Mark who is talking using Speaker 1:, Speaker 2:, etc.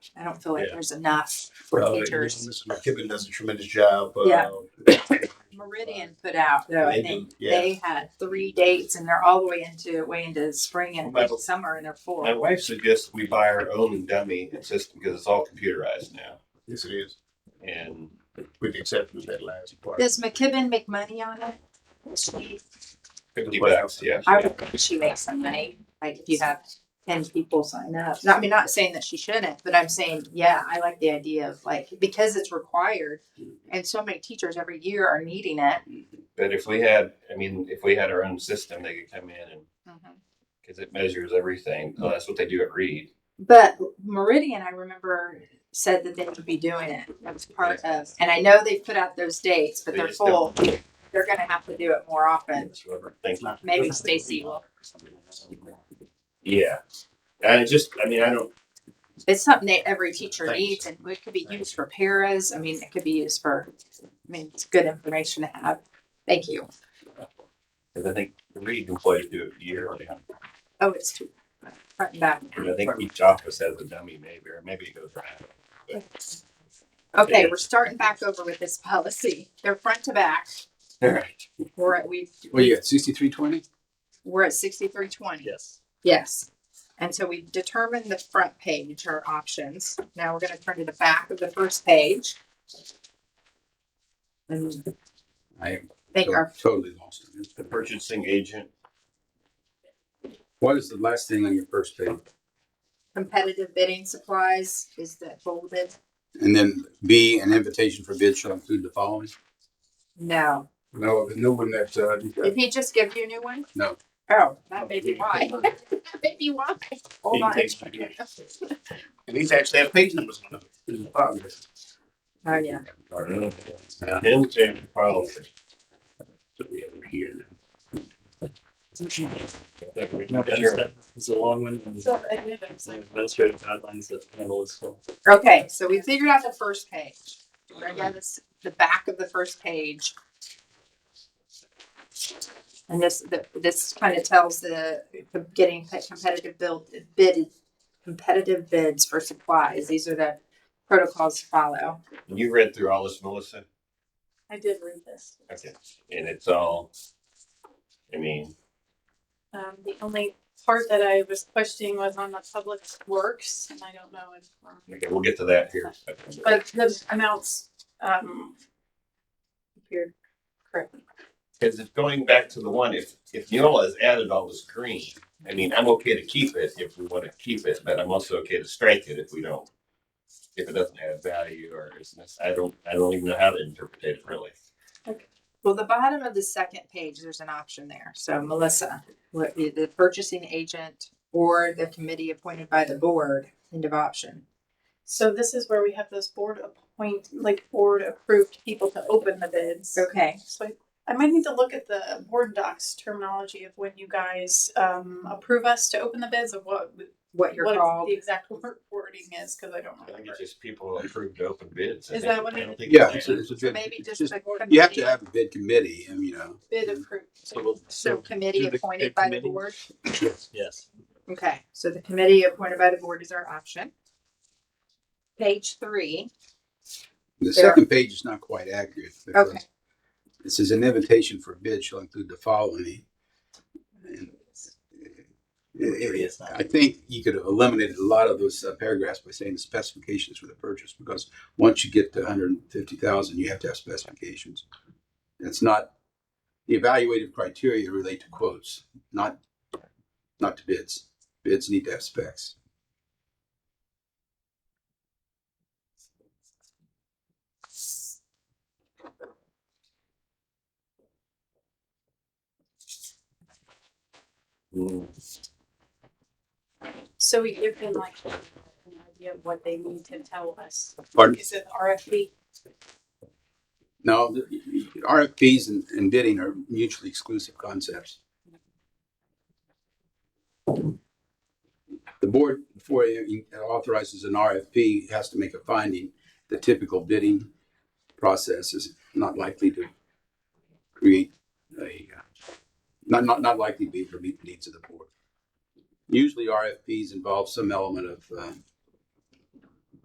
Speaker 1: I don't feel like
Speaker 2: Yeah.
Speaker 1: there's enough for
Speaker 2: Uh,
Speaker 1: teachers.
Speaker 2: Mr. McKibben does a tremendous job. uh,
Speaker 1: Yeah. Meridian put out though, I
Speaker 2: They
Speaker 1: think
Speaker 2: do, yeah.
Speaker 1: they had three dates and they're all the way into, way into spring and
Speaker 2: Well, my-
Speaker 1: summer and they're full.
Speaker 3: My wife suggests we buy our own dummy and system because it's all computerized now.
Speaker 2: Yes, it is.
Speaker 3: And
Speaker 2: With the exception of that last part.
Speaker 1: Does McKibben make money on it? Does she-
Speaker 3: fifty bucks, yeah.
Speaker 1: I would think she makes some money, like if you have ten people sign up. Not- I mean, not saying that she shouldn't, but I'm saying, yeah, I like the idea of like, because it's required. And so many teachers every year are needing it.
Speaker 3: But if we had, I mean, if we had our own system, they could come in and,
Speaker 1: Mm-hmm.
Speaker 3: because it measures everything. Well, that's what they do at Reed.
Speaker 1: But Meridian, I remember, said that they would be doing it. That was part of, and I know they put out those dates, but
Speaker 3: They
Speaker 1: they're
Speaker 3: just
Speaker 1: full. They're gonna have to do it more often.
Speaker 3: That's what I think.
Speaker 1: Maybe Stacy will.
Speaker 3: Yeah. And it just, I mean, I don't,
Speaker 1: It's something that every teacher
Speaker 2: Thanks.
Speaker 1: needs and it could be used for paras. I mean, it could be used for, I mean, it's good information to have. Thank you.
Speaker 3: because I think the Reed employees do it yearly.
Speaker 1: Oh, it's too front and back.
Speaker 3: And I think each office has a dummy maybe, or maybe it goes around.
Speaker 1: Okay,
Speaker 3: Yeah.
Speaker 1: we're starting back over with this policy. They're front to back.
Speaker 3: All right.
Speaker 1: We're at, we,
Speaker 4: Well, you got sixty-three twenty?
Speaker 1: we're at sixty-three twenty.
Speaker 4: Yes.
Speaker 1: Yes. And so we've determined the front page, our options. Now we're gonna turn to the back of the first page. And
Speaker 4: I am
Speaker 1: think our,
Speaker 4: totally lost. on this.
Speaker 3: The purchasing agent,
Speaker 4: What is the last thing on your first page?
Speaker 1: competitive bidding supplies is that bolded?
Speaker 4: And then B, an invitation for bid shall include the following?
Speaker 1: No.
Speaker 4: No, the new one that, uh.
Speaker 1: Did he just give you a new one?
Speaker 4: No.
Speaker 1: Oh, that may be why. That may be why. Hold
Speaker 2: He
Speaker 1: on.
Speaker 2: takes my page. And these actually have page numbers on them. It's a progress.
Speaker 1: Oh, yeah.
Speaker 3: or him,
Speaker 4: Yeah.
Speaker 3: Jim, policy.
Speaker 2: So we have it here.
Speaker 5: No, but
Speaker 3: Sure.
Speaker 5: that- It's a long one. and
Speaker 1: So, I knew that was like-
Speaker 5: Administrative guidelines that handle this whole.
Speaker 1: Okay, so we figured out the first page. We're gonna go this, the back of the first page. And this, the, this kind of tells the, the getting pe- competitive build, bid, competitive bids for supplies. These are the protocols to follow.
Speaker 3: You read through all this, Melissa?
Speaker 6: I did read this.
Speaker 3: Okay. And it's all, I mean,
Speaker 6: Um, the only part that I was questioning was on the public works, and I don't know if, um,
Speaker 3: okay, we'll get to that here.
Speaker 6: but the amounts, um, appeared correctly.
Speaker 3: Because it's going back to the one, if, if Neola has added all this green, I mean, I'm okay to keep it if we want to keep it, but I'm also okay to strike it if we don't. If it doesn't add value or is, I don't, I don't even know how to interpret it really.
Speaker 1: Well, the bottom of the second page, there's an option there. So Melissa, what, the purchasing agent or the committee appointed by the board, end of option.
Speaker 6: So this is where we have those board appoint, like board approved people to open the bids.
Speaker 1: Okay,
Speaker 6: So I, I might need to look at the board docs terminology of when you guys, um, approve us to open the bids of what,
Speaker 1: what you're
Speaker 6: what
Speaker 1: called.
Speaker 6: the exact word wording is, cause I don't
Speaker 3: I think
Speaker 6: remember.
Speaker 3: it's just people approved to open bids. I
Speaker 6: Is
Speaker 3: think-
Speaker 6: that what
Speaker 3: I
Speaker 6: it
Speaker 3: don't
Speaker 6: is?
Speaker 3: think
Speaker 4: Yeah,
Speaker 3: it's
Speaker 4: it's a, it's a bid.
Speaker 1: Maybe
Speaker 4: It's
Speaker 1: just
Speaker 4: just-
Speaker 1: the.
Speaker 4: You have
Speaker 1: committee.
Speaker 4: to have a bid committee, and you know.
Speaker 6: Bid approved.
Speaker 5: So we'll-
Speaker 1: So
Speaker 5: so,
Speaker 1: committee
Speaker 5: do the-
Speaker 1: appointed
Speaker 5: the
Speaker 1: by the
Speaker 5: committee?
Speaker 1: board?
Speaker 5: yes.
Speaker 1: Okay, so the committee appointed by the board is our option. Page three, There
Speaker 4: The
Speaker 1: are-
Speaker 4: second page is not quite accurate. because
Speaker 1: Okay.
Speaker 4: It says an invitation for bid shall include the following. And it- it- I think you could have eliminated a lot of those uh, paragraphs by saying the specifications for the purchase, because once you get to hundred and fifty thousand, you have to have specifications. It's not, the evaluative criteria relate to quotes, not, not to bids. Bids need to have specs.
Speaker 6: So we give them like an idea of what they need to tell us.
Speaker 4: Pardon?
Speaker 6: Is it RFP?
Speaker 4: No, the- RFPs and- and bidding are mutually exclusive concepts. The board, before it authorizes an RFP, has to make a finding. The typical bidding process is not likely to create a, uh, not, not, not likely to be for meet the needs of the board. Usually RFPs involve some element of, um,